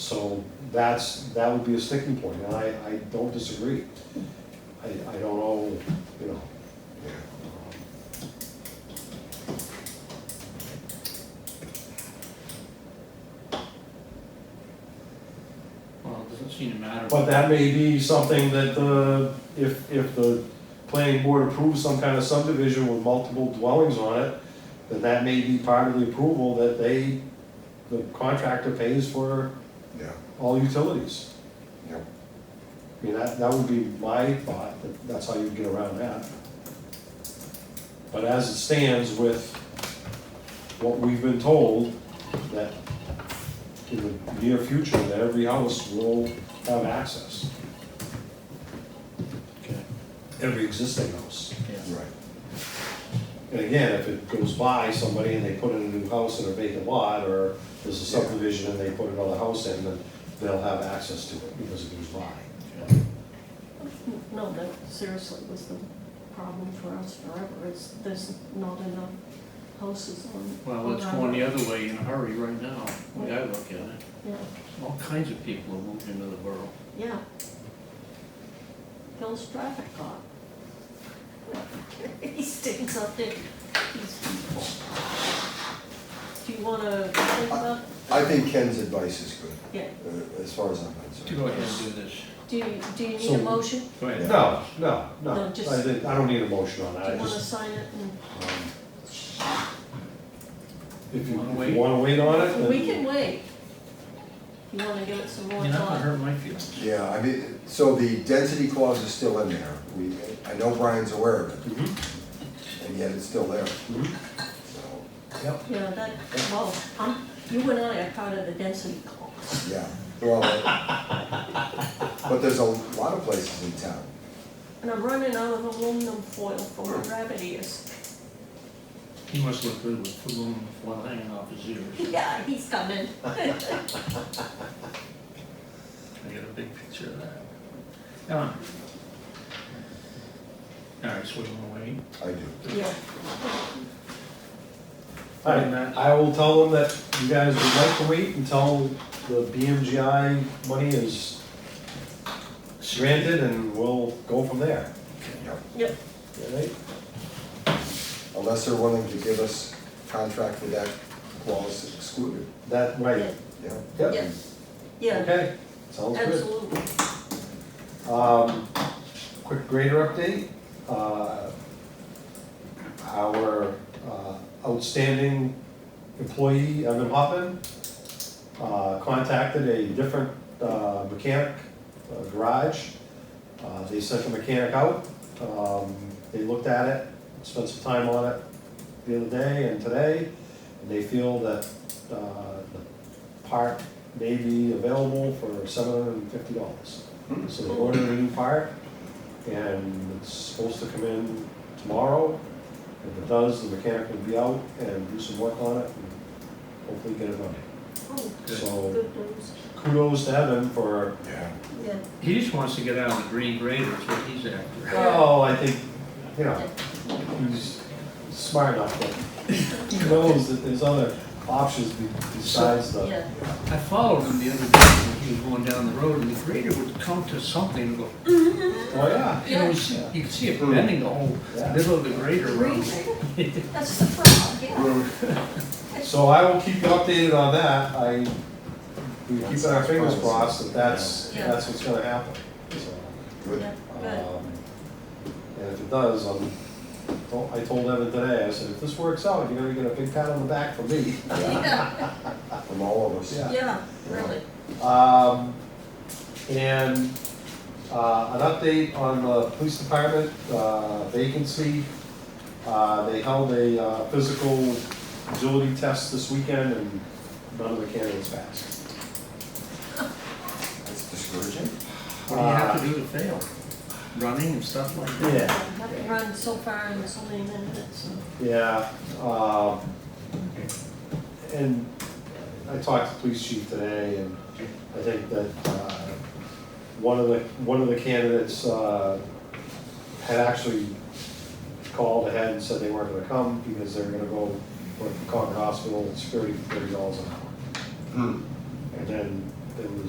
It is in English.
So that's, that would be a sticking point, and I, I don't disagree. I, I don't know, you know. um, Well, it doesn't seem to matter. But that may be something that the, if, if the planning board approves some kind of subdivision with multiple dwellings on it, then that may be part of the approval that they, the contractor pays for Yeah, all utilities. yeah. I mean, that, that would be my thought, that that's how you get around that. But as it stands with what we've been told, that in the near future, that every house will have access, Okay, every existing house. yeah. Right. And again, if it goes by somebody and they put in a new house in a vacant lot, or there's a subdivision and they put another house in, then they'll have access to it because it goes by. Okay. No, that seriously was the problem for us forever, is there's not enough houses on. Well, it's going the other way in a hurry right now, the way I look at it. Yeah, All kinds of people are moving into the borough. yeah. Phil's traffic cop. He stinks up there, these people. Do you wanna think about, I think Ken's advice is good, yeah, uh, as far as I'm concerned. Go ahead and do this. do you, do you need So- a motion? Go ahead. No, no, no, No, I just- didn't- I don't need a motion on that. Do I you wanna just- sign it and? If you Wanna if wait? you wanna wait on it, We can then, wait. You wanna give it some more You're not gonna thought? hurt my feelings. Yeah, I mean, so the density clause is still in there. We, I know Brian's aware of it, Mhm, and yet it's still there, mhm. so, Yeah, that, well, I'm, you and I are part of the density clause. yeah. Well, But there's a lot of places in town. And I'm running out of aluminum foil for my rabbit ears. He must look good with aluminum foil hanging off his ears. Yeah, he's coming. I got a big picture of that. Ellen? All right, so we wanna wait? I do. Yeah, All right, I will tell them that you guys would like to wait until the BMGI money is granted, and we'll go from there. Yep. yep, All right? Unless they're willing to give us contract with that clause excluded, That, right, yeah. yep, Yeah. yeah, okay, sounds good. absolutely. Um, quick grader update, uh, our uh, outstanding employee, Evan Hoffman, uh, contacted a different, uh, mechanic, uh, garage. Uh, they sent the mechanic out, um, they looked at it, spent some time on it the other day and today. And they feel that, uh, the part may be available for seven hundred and fifty dollars. So they ordered a new part, and it's supposed to come in tomorrow. If it does, the mechanic will be out and do some work on it, and hopefully get it done. Oh, Good. So good news, kudos to Evan for, Yeah. yeah. He just wants to get out of the green grader, is what he's after. well, oh, I think, you know, he's smart enough, but he knows that there's other options be- besides the, Yeah, I followed him the other day when he was going down the road, and the grader would come to something and go, oh, yeah. you know, you see- you could see it bending the whole Yeah. middle of the grader road. Really? That's the problem, yeah. So I will keep you updated on that, I, we keep our fingers crossed that that's, Yeah. that's what's gonna happen, so. Good. Yeah, good. Um, And if it does, I'm, well, I told Evan today, I said, if this works out, you're gonna get a big pat on the back from me. Yeah, From all of us. Yeah. yeah, really. Um, and, uh, an update on the police department, uh, vacancy. Uh, they held a, uh, physical agility test this weekend and none of the candidates passed. That's discouraging. What do you have to do to fail? Running and stuff like that? I haven't run so far in so many minutes. Yeah, um, and I talked to the police chief today, and I think that, uh, one of the, one of the candidates, uh, had actually called ahead and said they weren't gonna come because they were gonna go work for Concord Hospital, it's thirty, thirty dollars an hour. Hmm. And then and was